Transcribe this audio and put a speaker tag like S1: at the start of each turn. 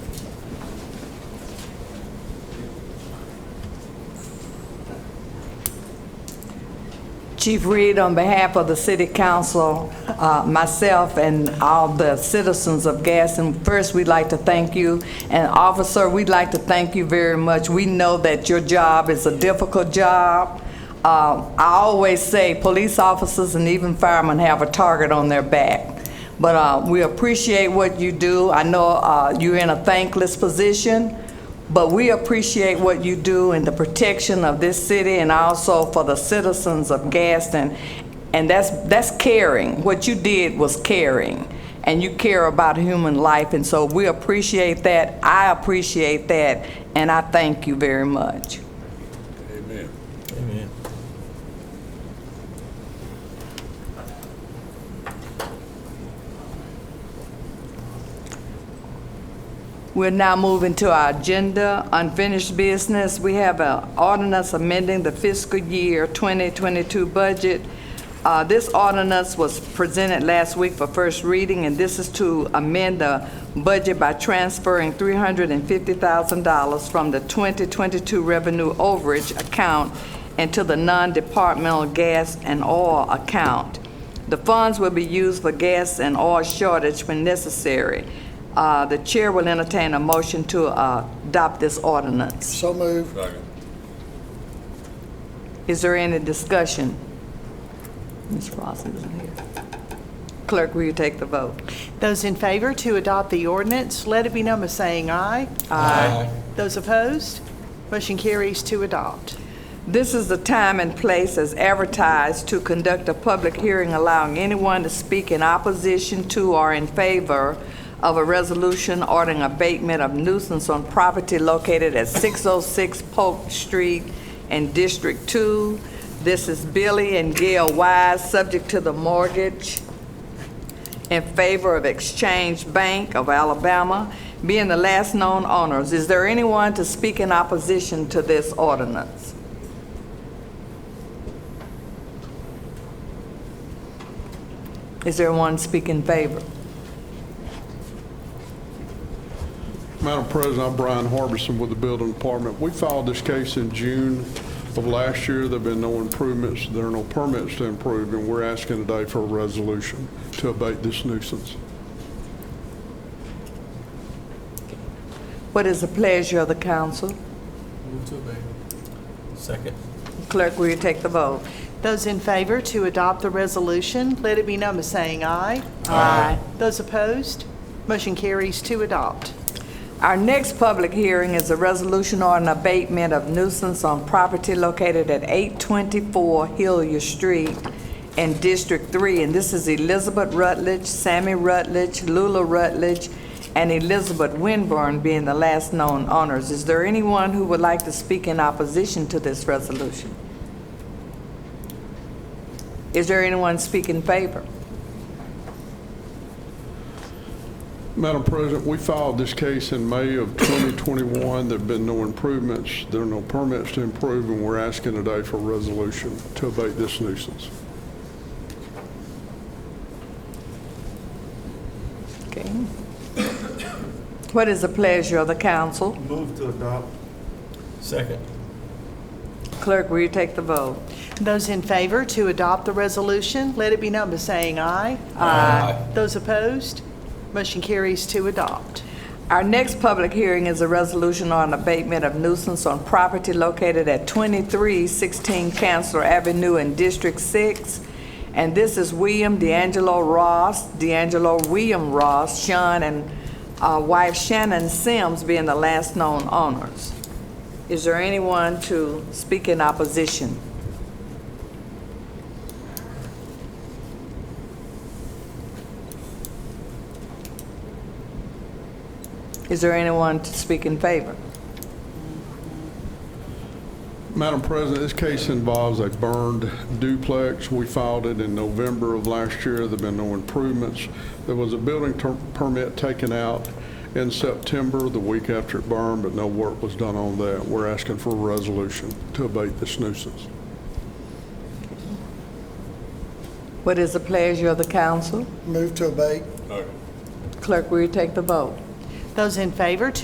S1: Chief Reed, on behalf of the City Council, uh, myself, and all the citizens of Gaston, first, we'd like to thank you. And Officer, we'd like to thank you very much. We know that your job is a difficult job. Uh, I always say, police officers and even firemen have a target on their back. But uh, we appreciate what you do. I know uh, you're in a thankless position, but we appreciate what you do in the protection of this city and also for the citizens of Gaston. And that's, that's caring. What you did was caring. And you care about human life, and so we appreciate that. I appreciate that, and I thank you very much.
S2: Amen.
S1: We're now moving to our agenda, unfinished business. We have an ordinance amending the fiscal year 2022 budget. Uh, This ordinance was presented last week for first reading, and this is to amend the budget by transferring $350,000 from the 2022 revenue overage account into the non-departmental gas and oil account. The funds will be used for gas and oil shortage when necessary. Uh, The chair will entertain a motion to uh, adopt this ordinance.
S3: So moved.
S2: Second.
S1: Is there any discussion? Ms. Ross isn't here. Clerk, will you take the vote?
S4: Those in favor to adopt the ordinance, let it be known by saying aye. Aye. Those opposed, motion carries to adopt.
S1: This is the time and place as advertised to conduct a public hearing allowing anyone to speak in opposition to or in favor of a resolution ordering abatement of nuisance on property located at 606 Polk Street in District 2. This is Billy and Gail Wise, subject to the mortgage in favor of Exchange Bank of Alabama, being the last known owners. Is there anyone to speak in opposition to this ordinance? Is there one speak in favor?
S5: Madam President, I'm Brian Harbison with the Building Department. We filed this case in June of last year. There've been no improvements, there are no permits to improve, and we're asking today for a resolution to abate this nuisance.
S1: What is the pleasure of the council?
S6: Move to obey. Second.
S1: Clerk, will you take the vote?
S4: Those in favor to adopt the resolution, let it be known by saying aye.
S1: Aye.
S4: Those opposed, motion carries to adopt.
S1: Our next public hearing is a resolution on an abatement of nuisance on property located at 824 Hillier Street in District 3, and this is Elizabeth Rutledge, Sammy Rutledge, Lula Rutledge, and Elizabeth Winburn being the last known owners. Is there anyone who would like to speak in opposition to this resolution? Is there anyone speak in favor?
S5: Madam President, we filed this case in May of 2021. There've been no improvements, there are no permits to improve, and we're asking today for a resolution to abate this nuisance.
S1: Okay. What is the pleasure of the council?
S6: Move to adopt. Second.
S1: Clerk, will you take the vote?
S4: Those in favor to adopt the resolution, let it be known by saying aye.
S6: Aye.
S4: Those opposed, motion carries to adopt.
S1: Our next public hearing is a resolution on abatement of nuisance on property located at 2316 Chancellor Avenue in District 6. And this is William D'Angelo Ross, D'Angelo William Ross, Sean and uh, wife Shannon Sims being the last known owners. Is there anyone to speak in opposition? Is there anyone to speak in favor?
S5: Madam President, this case involves a burned duplex. We filed it in November of last year. There've been no improvements. There was a building ter- permit taken out in September, the week after it burned, but no work was done on that. We're asking for a resolution to abate this nuisance.
S1: What is the pleasure of the council?
S3: Move to abate.
S2: Second.
S1: Clerk, will you take the vote?
S4: Those in favor to